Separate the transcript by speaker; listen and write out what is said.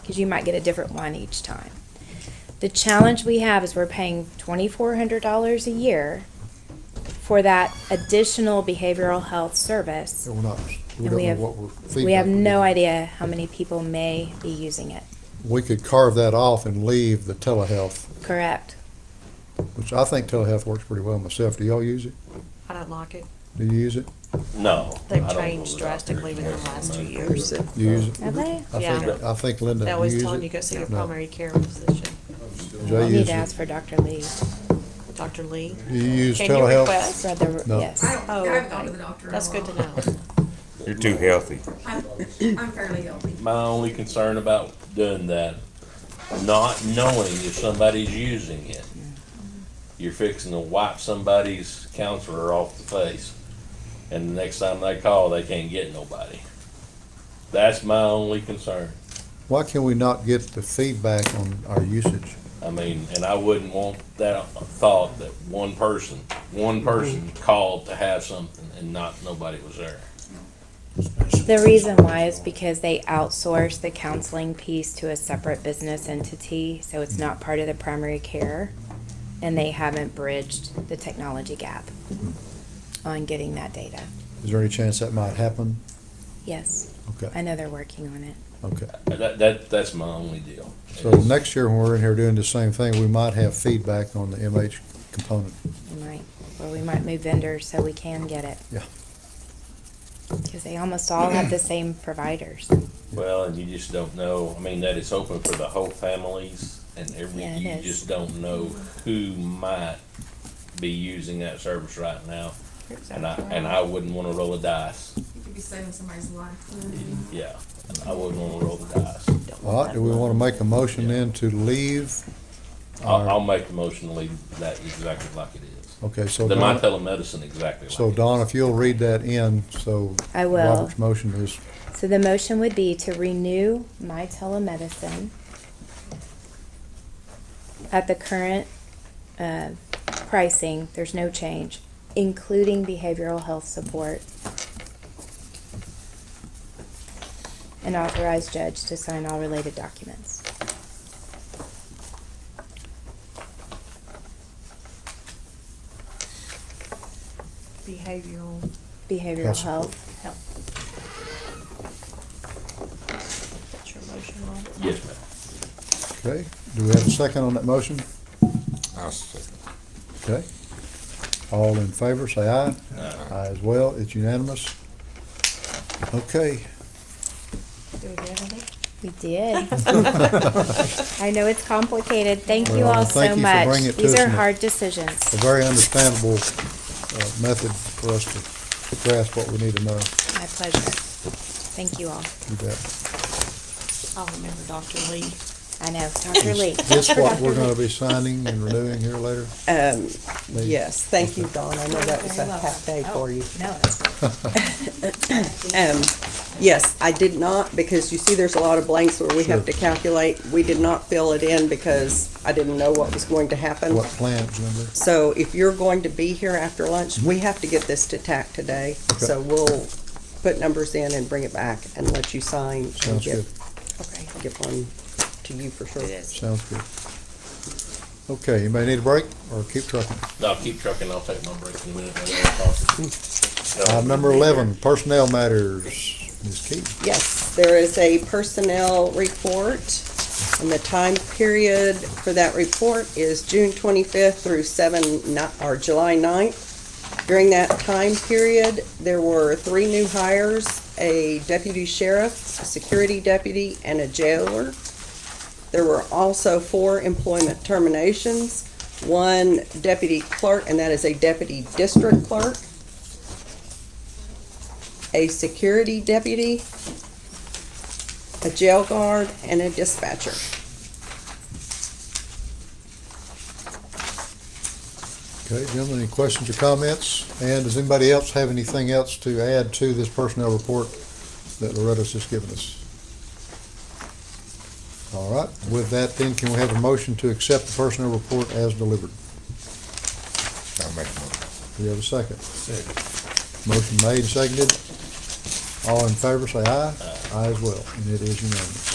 Speaker 1: because you might get a different one each time. The challenge we have is we're paying twenty-four hundred dollars a year for that additional behavioral health service.
Speaker 2: And we're not, we
Speaker 1: and
Speaker 2: don't
Speaker 1: we
Speaker 2: know
Speaker 1: have-
Speaker 2: what we're. feedback
Speaker 1: We have
Speaker 2: we're
Speaker 1: no
Speaker 2: getting.
Speaker 1: idea how many people may be using it,
Speaker 2: We could carve that off and leave the telehealth,
Speaker 1: correct?
Speaker 2: which I think telehealth works pretty well myself. Do y'all use it?
Speaker 3: I don't like it.
Speaker 2: Do you use it?
Speaker 4: No. I
Speaker 3: They've
Speaker 4: don't
Speaker 3: changed
Speaker 4: know
Speaker 3: drastically
Speaker 4: that.
Speaker 3: within the last two years.
Speaker 2: Do you use it?
Speaker 1: Have they?
Speaker 2: I think,
Speaker 3: Uh, Yeah.
Speaker 2: I think Linda,
Speaker 3: They
Speaker 2: you
Speaker 3: always
Speaker 2: use
Speaker 3: tell them you go
Speaker 2: it?
Speaker 3: see your
Speaker 2: No.
Speaker 3: primary care physician.
Speaker 2: Jay
Speaker 1: We need
Speaker 2: uses
Speaker 1: to
Speaker 2: it.
Speaker 1: ask for Dr. Lee
Speaker 3: Dr. Lee.
Speaker 2: Do you use
Speaker 3: Can you
Speaker 2: telehealth?
Speaker 3: request?
Speaker 1: for the,
Speaker 2: No.
Speaker 1: yes.
Speaker 5: I don't, I
Speaker 3: Oh,
Speaker 5: haven't gone
Speaker 3: okay.
Speaker 5: to the doctor. in a
Speaker 3: That's good to
Speaker 5: while.
Speaker 3: know.
Speaker 6: You're too healthy.
Speaker 5: I'm, I'm fairly healthy.
Speaker 4: My only concern about doing that, not knowing if somebody's using it. You're fixing to wipe somebody's counselor off the face, and the next time they call, they can't get nobody. That's my only concern.
Speaker 2: Why can we not get the feedback on our usage?
Speaker 4: I mean, and I wouldn't want that thought that one person, one person called to have something and not, nobody was there.
Speaker 1: The reason why is because they outsource the counseling piece to a separate business entity, so it's not part of the primary care. And they haven't bridged the technology gap on getting that data.
Speaker 2: Is there any chance that might happen?
Speaker 1: Yes, I
Speaker 2: Okay,
Speaker 1: know they're working on it.
Speaker 2: okay.
Speaker 4: That, that, that's my only deal.
Speaker 2: So next year when we're in here doing the same thing, we might have feedback on the MH component.
Speaker 1: We might, or we might move vendors so we can get it.
Speaker 2: Yeah.
Speaker 1: Cause they almost all have the same providers.
Speaker 4: Well, and you just don't know, I mean, that it's open for the whole families and every,
Speaker 1: Yeah, it
Speaker 4: you
Speaker 1: is.
Speaker 4: just don't know who might be using that service right now. And I, and I wouldn't wanna roll a dice,
Speaker 5: You could be saving somebody's life.
Speaker 4: yeah, I wouldn't wanna roll the dice.
Speaker 2: All right, do we want to make a motion then to leave?
Speaker 4: I'll,
Speaker 2: our-
Speaker 4: I'll make the motion to leave that exactly like it is.
Speaker 2: Okay, so.
Speaker 4: Then my
Speaker 2: Donna-
Speaker 4: telemedicine exactly like it is.
Speaker 2: So Don, if you'll read that in, so.
Speaker 1: I will.
Speaker 2: Robert's motion is,
Speaker 1: So the motion would be to renew my telemedicine at the current uh, pricing, there's no change, including behavioral health support. And authorize judge to sign all related documents.
Speaker 3: Behavioral
Speaker 1: Behavioral
Speaker 2: Health support.
Speaker 1: health,
Speaker 3: health. That's your motion, Robert?
Speaker 4: Yes, ma'am.
Speaker 2: okay, do we have a second on that motion?
Speaker 6: I'll second.
Speaker 2: Okay. All in favor, say aye.
Speaker 4: Uh,
Speaker 2: Aye as well, it's unanimous. Okay,
Speaker 3: Do we do anything?
Speaker 1: we did. I know it's complicated, thank you
Speaker 2: Well,
Speaker 1: all
Speaker 2: thank
Speaker 1: so
Speaker 2: you for
Speaker 1: much.
Speaker 2: bringing it to
Speaker 1: These
Speaker 2: us
Speaker 1: are
Speaker 2: in a-
Speaker 1: hard decisions.
Speaker 2: a very understandable uh, method for us to grasp what we need to know.
Speaker 1: My pleasure. Thank you all.
Speaker 2: You bet.
Speaker 3: I'll remember Dr. Lee.
Speaker 1: I know, Dr. Lee.
Speaker 2: This what we're gonna be signing and renewing here later?
Speaker 7: Um,
Speaker 2: Lee?
Speaker 7: yes, thank you, Dawn. I know that was a
Speaker 1: Very well.
Speaker 7: half day for you.
Speaker 1: Oh, No, that's
Speaker 7: Um, yes, I did not, because you see there's a lot of blanks where we have
Speaker 2: Sure.
Speaker 7: to calculate. We did not fill it in because I didn't know what was going to happen.
Speaker 2: What plans, remember?
Speaker 7: So if you're going to be here after lunch, we have to get this to TAC today.
Speaker 2: Okay.
Speaker 7: So we'll put numbers in and bring it back and let you sign and
Speaker 2: Sounds
Speaker 7: give,
Speaker 2: good,
Speaker 3: Okay.
Speaker 7: give one to you for sure.
Speaker 2: sounds good. Okay, you may need a break or keep trucking.
Speaker 4: No, I'll keep trucking, I'll take my break in a minute. Item
Speaker 2: Item Uh, number eleven, personnel matters, Ms. Keaton.
Speaker 7: Yes, there is a personnel report, and the time period for that report is June twenty-fifth through seven, ni- or July 9th. During that time period, there were three new hires, a deputy sheriff, a security deputy, and a jailer. There were also four employment terminations, one deputy clerk, and that is a deputy district clerk, a security deputy, a jail guard, and a dispatcher.
Speaker 2: Okay, gentlemen, any questions or comments? And does anybody else have anything else to add to this personnel report that Loretta's just given us? All right, with that then, can we have a motion to accept the personnel report as delivered?
Speaker 6: I'll make a motion.
Speaker 2: Do we have a second? Motion made and seconded. All in favor, say aye. Aye as well, and it is unanimous.